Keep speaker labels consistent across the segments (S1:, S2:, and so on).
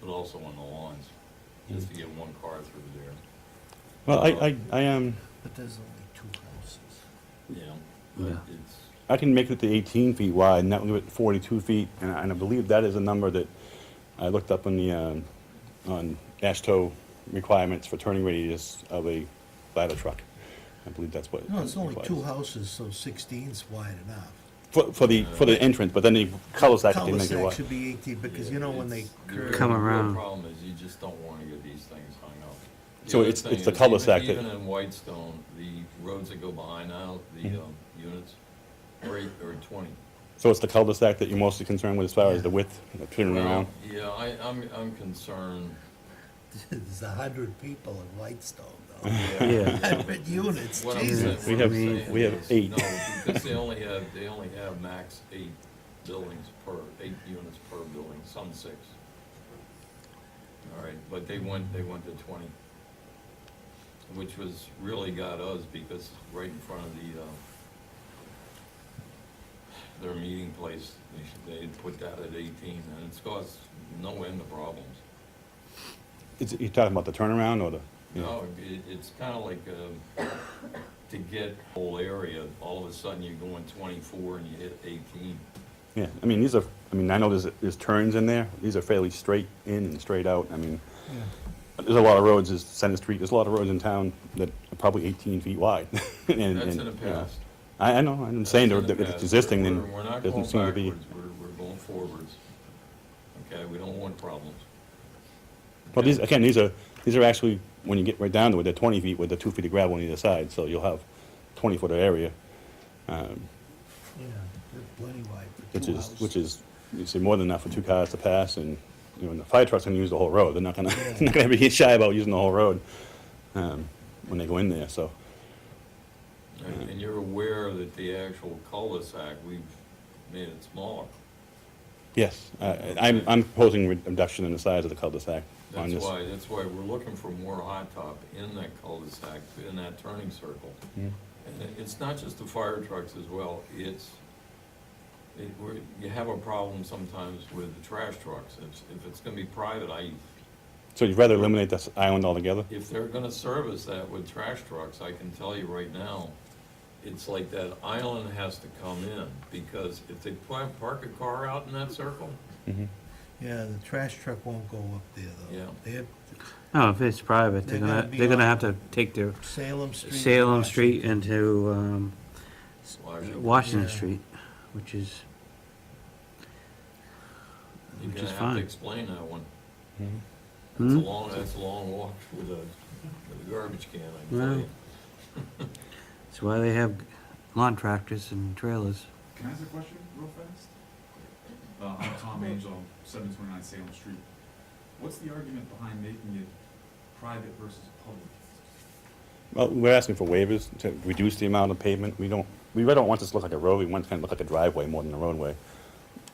S1: but also on the lawns, just to get one car through there.
S2: Well, I, I, um, I am,
S3: But there's only two houses.
S1: Yeah,
S4: Yeah.
S1: but it's,
S2: I can make it to 18 feet wide, and that would give it 42 feet, and I, and I believe that is a number that I looked up on the, um, on ASHTO requirements for turning radius of a ladder truck. I believe that's what.
S3: No, it's only
S2: it
S3: two
S2: requires.
S3: houses, so 16's wide enough.
S2: For, for the, for the entrance, but then the cul-de-sac, they make it
S3: Cul-de-sac
S2: wide.
S3: should be 18, because you know when they
S1: it's- the
S3: curve.
S1: real-
S4: Come
S1: the real
S4: around.
S1: problem is you just don't wanna get these things hung up. The
S2: So
S1: other
S2: it's-
S1: thing
S2: it's the
S1: is,
S2: cul-de-sac
S1: even-
S2: that-
S1: Even in Whitestone, the roads that go behind now, the,
S2: Mm-hmm.
S1: um, units, are eight or twenty.
S2: So it's the cul-de-sac that you're mostly concerned with as far as the width, the turning
S1: Well,
S2: around?
S1: Yeah, I, I'm, I'm concerned.
S3: There's a hundred people in Whitestone, though.
S4: Yeah.
S3: Hundred units,
S1: What I'm
S3: Jesus.
S1: saying-
S2: We
S1: what
S2: have-
S1: I'm saying
S2: we have
S1: is,
S2: eight.
S1: No, because they only have, they only have max eight buildings per, eight units per building, some six. All right, but they went, they went to twenty, which was, really got us because right in front of the, uh, their meeting place, they should, they had put that at eighteen and it's caused no end of problems.
S2: Is, it- you're talking about the turnaround or the? yeah.
S1: No, it, it's kind of like, um, to get whole area, all of a sudden you're going twenty-four and you hit eighteen.
S2: Yeah, I mean, these are, I mean, I know there's, there's turns in there, these are fairly straight in and straight out, I mean, there's a lot of roads, there's Center Street, there's a lot of roads in town that are probably eighteen feet wide. That's
S1: That's in the past.
S2: I, I know, I'm saying
S1: That's in the
S2: that if it's
S1: past.
S2: existing, then
S1: We're- we're not
S2: doesn't
S1: going
S2: seem to be.
S1: backwards. We're, we're going forwards. Okay, we don't want problems.
S2: Well, these,
S1: Okay.
S2: again, these are, these are actually, when you get right down to it, they're twenty feet with the two feet of gravel on either side, so you'll have twenty foot of area. um,
S3: Yeah, they're plenty wide for
S2: Which
S3: two
S2: is,
S3: houses.
S2: which is, you see, more than enough for two cars to pass, and, you know, and the fire trucks gonna use the whole road, they're not gonna,
S3: Yeah.
S2: they're not gonna be shy about using the whole road, um, when they go in there, so.
S1: And and you're aware that the actual cul-de-sac, we've made it smaller.
S2: Yes, I, I'm, I'm proposing reduction in the size of the cul-de-sac on
S1: That's
S2: this.
S1: why, that's why we're looking for more hot top in that cul-de-sac, in that turning circle.
S2: Yeah.
S1: And it- it's not just the fire trucks as well, it's, it, we're, you have a problem sometimes with the trash trucks. If, if it's gonna be private, I,
S2: So you'd rather eliminate this island altogether?
S1: if they're gonna service that with trash trucks, I can tell you right now, it's like that island has to come in, because if they pla- park a car out in that circle, Mm-hmm.
S3: Yeah, the trash truck won't go up there, though.
S1: Yeah.
S3: They have
S4: No, Oh, if it's private, they're
S3: They're
S4: gonna,
S3: gonna be
S4: they're gonna
S3: on-
S4: have to take their
S3: Salem Street.
S4: Salem Street
S3: Washington.
S4: into, um,
S1: why should-
S4: Washington
S3: Yeah.
S4: Street, which is,
S1: you're
S4: which
S1: gonna
S4: is
S1: have to
S4: fine.
S1: explain that one. Mm-hmm.
S2: Mhm.
S1: That's a
S4: Hmm?
S1: long, that's a long walk with a, with a garbage can, I can
S4: Well,
S1: tell you.
S4: That's why they have lawn tractors and trailers.
S5: Can I ask a question real fast? Uh, I'm Tom Angel, seven twenty-nine Salem Street. What's the argument behind making it private versus public?
S2: Well, we're asking for waivers to reduce the amount of pavement. We don't, we really don't want this to look like a road. We want it to kind of look like a driveway more than a roadway.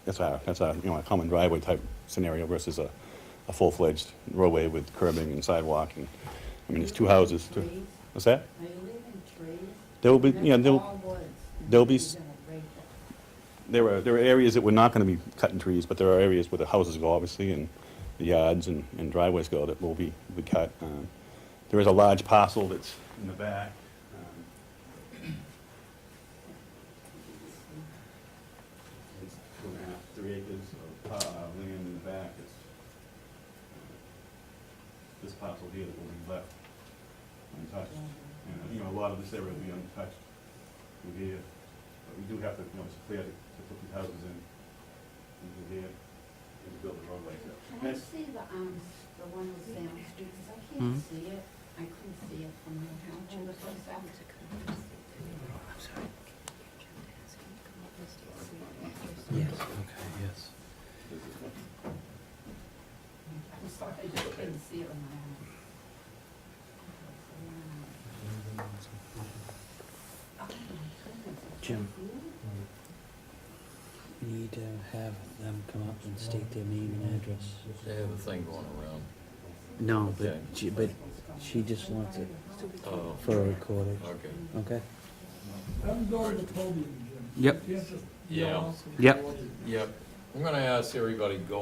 S2: That's our, that's our, you know, a common driveway type scenario versus a, a full-fledged roadway with curbing and sidewalk and, I mean, there's two houses.
S6: Are
S2: two-
S6: you
S2: What's that?
S6: leaving trees?
S2: There will be,
S6: That's
S2: you know, there'll,
S6: all woods.
S2: there'll be
S6: You're
S2: s-
S6: gonna break that.
S2: There are, there are areas that we're not gonna be cutting trees, but there are areas where the houses go, obviously, and the yards and, and driveways go that will be, be cut. Um, There is a large parcel that's in the back. um, It's two and a half, three acres of, uh, land in the back, it's uh, this parcel here that will be left untouched. And, you know, a lot of this area will be untouched through here. But we do have to, you know, it's clear to, to put the houses in, into here, and to build the roadway.
S6: Can I
S2: That's-
S6: see the, um, the one with Sam Street, 'Cause I
S4: Hmm?
S6: can't see it, I couldn't see it from your house. It was so
S3: Oh,
S6: sad.
S4: Yes, okay, yes.
S6: I'm sorry, I just couldn't see it in my house. Oh, my goodness.
S4: Jim. Need to have them come up and state their name and address.
S1: They have a thing going around.
S4: No, but
S1: Okay.
S4: she, but she just wants it
S1: Oh,
S4: for a recording,
S1: okay.
S4: okay?
S7: Have them go to the podium, Jim.
S4: Yep.
S7: You have to-
S1: Yeah.
S4: Yep.
S1: Yep. I'm gonna ask everybody go